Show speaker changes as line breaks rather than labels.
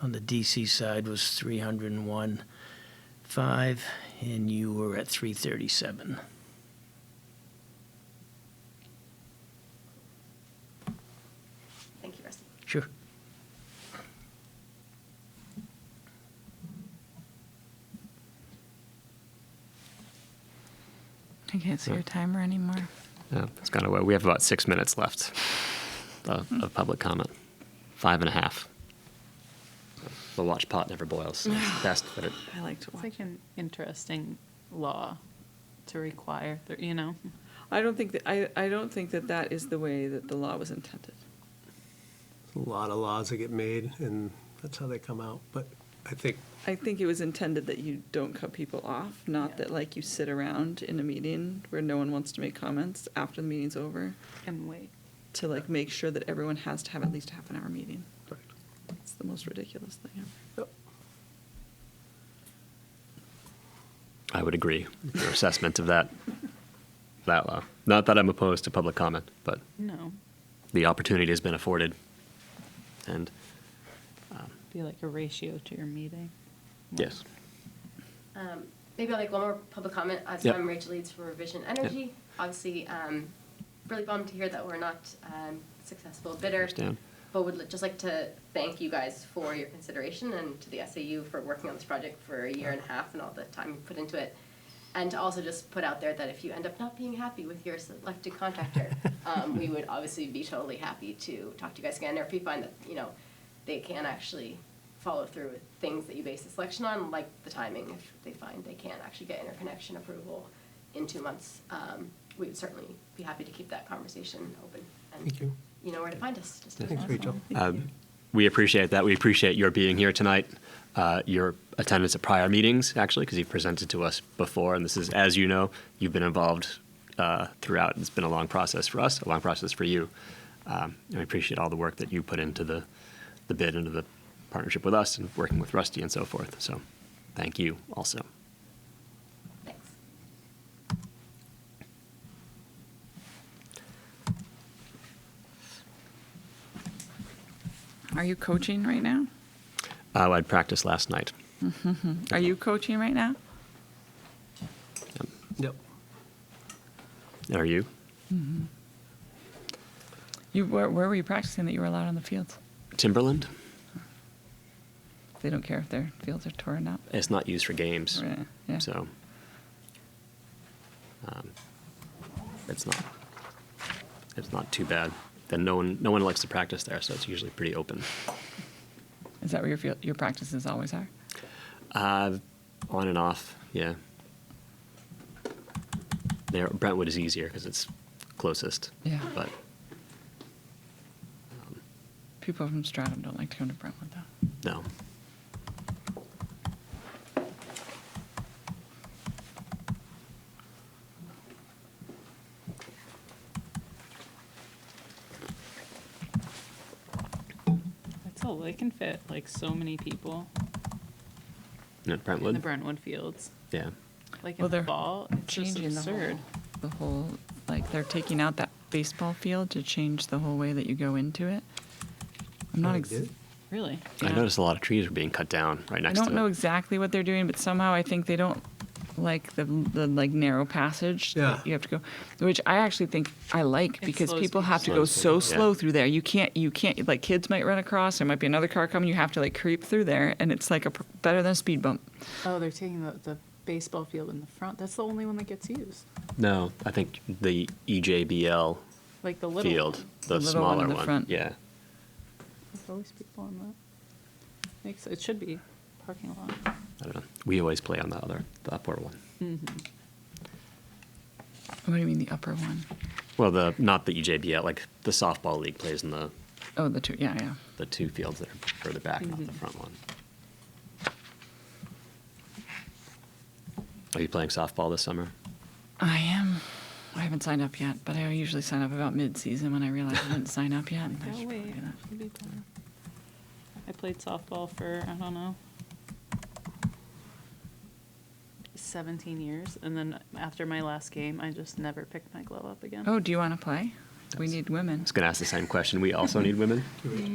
on the DC side was 301.5, and you were at 337.
Thank you, Rusty.
Sure.
I can't see your timer anymore.
Yeah, it's gone away. We have about six minutes left of, of public comment. Five and a half. The watch pot never boils. so It's the best, but it,
I like to
It's
watch.
like an interesting law to require, that, you know?
I don't think that, I, I don't think that that is the way that the law was intended.
A lot of laws that get made, and that's how they come out. But I think
I think it was intended that you don't cut people off, not that like you sit around in a meeting where no one wants to make comments after the meeting's over
And wait.
to like make sure that everyone has to have at least a half an hour meeting. It's the most ridiculous thing ever.
I would agree with your assessment of that, that law. Not that I'm opposed to public comment, but
No,
the opportunity has been afforded. And
be like a ratio to your meeting.
yes,
Um, Maybe I'll make one more public comment. As
Yep.
I'm Rachel Leeds for Revision Energy. Obviously, um, really bummed to hear that we're not um, successful bidder.
Understand.
But would li- just like to thank you guys for your consideration and to the SAU for working on this project for a year and a half and all the time you put into it. And to also just put out there that if you end up not being happy with your selected contractor, um, we would obviously be totally happy to talk to you guys again. Or if you find that, you know, they can actually follow through with things that you base the selection on, like the timing, if they find they can't actually get interconnection approval in two months, um, we would certainly be happy to keep that conversation open. and
Thank you.
You know where to find us. Just
Thanks, Rachel.
we appreciate that. We appreciate your being here tonight, uh, your attendance at prior meetings, actually, because you've presented to us before. And this is, as you know, you've been involved uh, throughout. It's been a long process for us, a long process for you. Um, and we appreciate all the work that you put into the, the bid, into the partnership with us, and working with Rusty and so forth. So thank you also.
Thanks.
Are you coaching right now?
Uh, I'd practiced last night.
Are you coaching right now?
Yep.
Are you?
You where, where were you practicing that you were allowed on the fields?
Timberland?
They don't care if their fields are torn up.
It's not used for games.
Right, yeah.
So um, it's not it's not too bad. Then no one no one likes to practice there, so it's usually pretty open.
Is that where your field, your practices always are?
Uh, on and off, yeah. There, Brentwood is easier because it's closest.
Yeah.
But
People from Stratham don't like to come to Brentwood though.
no,
That's all, they can fit like so many people
no
in
Brentwood.
the Brentwood fields.
yeah.
Like
Well,
in the
they're
fall, it's just
Changing the
absurd.
whole, the whole like they're taking out that baseball field to change the whole way that you go into it. I'm not.
They
Ex-
did?
Really?
I
Yeah.
noticed a lot of trees were being cut down right
I
next
don't
to
know
it.
exactly what they're doing, but somehow I think they don't like the, the like narrow passage
Yeah.
that you have to go, which I actually think I like
It
because
slows
people
people
have to
down.
go so
Slows people down.
slow through there. You can't you can't like kids might run across. There might be another car coming. You have to like creep through there, and it's like a pr- better than a speed bump.
Oh, they're taking the, the baseball field in the front. That's the only one that gets used.
No, I think the E EJBL
Like the little
field,
one.
the,
The little one in
smaller
the front.
Yeah.
There's always people on that. Makes, it should be parking lot.
I don't know. We always play on the other, the upper one.
What do you mean the upper one?
Well, the not the E EJBL, like the softball league plays in the
Oh, the two. Yeah, yeah.
the two fields that are further back, not the front one. Are you playing softball this summer?
I am. I haven't signed up yet, but I usually sign up about mid-season when I realize I didn't sign up yet. I
Oh,
should probably
wait.
do that.
It'd be better. I played softball for, I don't know, 17 years. And then after my last game, I just never picked my glove up again.
Oh, do you want to play? We need women.
I was going to ask the same question. We also need women.